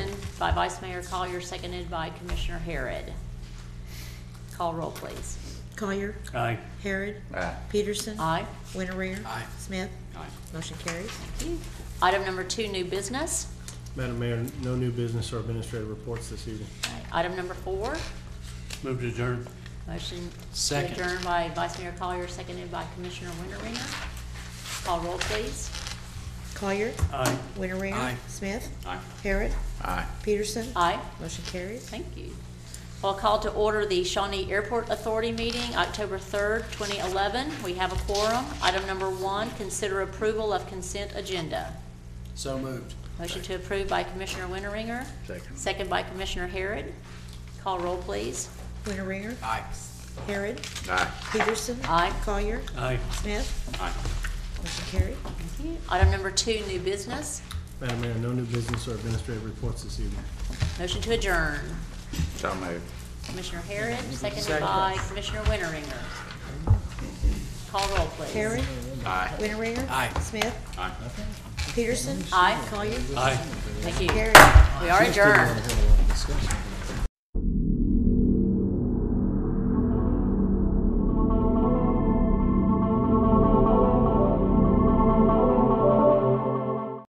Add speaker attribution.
Speaker 1: by Vice Mayor Collier, seconded by Commissioner Harrod. Call roll, please.
Speaker 2: Collier.
Speaker 3: Aye.
Speaker 2: Harrod.
Speaker 4: Aye.
Speaker 2: Peterson.
Speaker 1: Aye.
Speaker 2: Winteringer.
Speaker 3: Aye.
Speaker 2: Smith. Motion carries.
Speaker 1: Thank you. Item number two, new business.
Speaker 5: Madam Mayor, no new business or administrative reports this evening.
Speaker 1: Item number four,
Speaker 3: Move to adjourn.
Speaker 1: motion to
Speaker 3: Second.
Speaker 1: adjourn by Vice Mayor Collier, seconded by Commissioner Winteringer. Call roll, please.
Speaker 2: Collier.
Speaker 3: Aye.
Speaker 2: Winteringer.
Speaker 3: Aye.
Speaker 2: Smith.
Speaker 3: Aye.
Speaker 2: Harrod.
Speaker 4: Aye.
Speaker 2: Peterson.
Speaker 1: Aye.
Speaker 2: Motion carries.
Speaker 1: Thank you. Well, call to order the Shawnee Airport Authority meeting, October 3rd, 2011. We have a quorum. Item number one, consider approval of consent agenda.
Speaker 3: So moved.
Speaker 1: Motion to approve by Commissioner Winteringer.
Speaker 4: Second.
Speaker 1: Second by Commissioner Harrod. Call roll, please.
Speaker 2: Winteringer.
Speaker 3: Aye.
Speaker 2: Harrod.
Speaker 4: Aye.
Speaker 2: Peterson.
Speaker 1: Aye.
Speaker 2: Collier.
Speaker 3: Aye.
Speaker 2: Smith.
Speaker 3: Aye.
Speaker 2: Motion carried.
Speaker 1: Thank you. Item number two, new business.
Speaker 5: Madam Mayor, no new business or administrative reports this evening.
Speaker 1: Motion to adjourn.
Speaker 4: So moved.
Speaker 1: Commissioner Harrod, seconded by Commissioner Winteringer. Call roll, please.
Speaker 2: Harrod.
Speaker 4: Aye.
Speaker 2: Winteringer.
Speaker 3: Aye.
Speaker 2: Smith.
Speaker 4: Aye.
Speaker 2: Peterson.
Speaker 1: Aye.
Speaker 2: Collier.
Speaker 3: Aye.
Speaker 1: Thank you.
Speaker 2: Harrod.
Speaker 1: We are adjourned.
Speaker 5: Have a lot of discussion.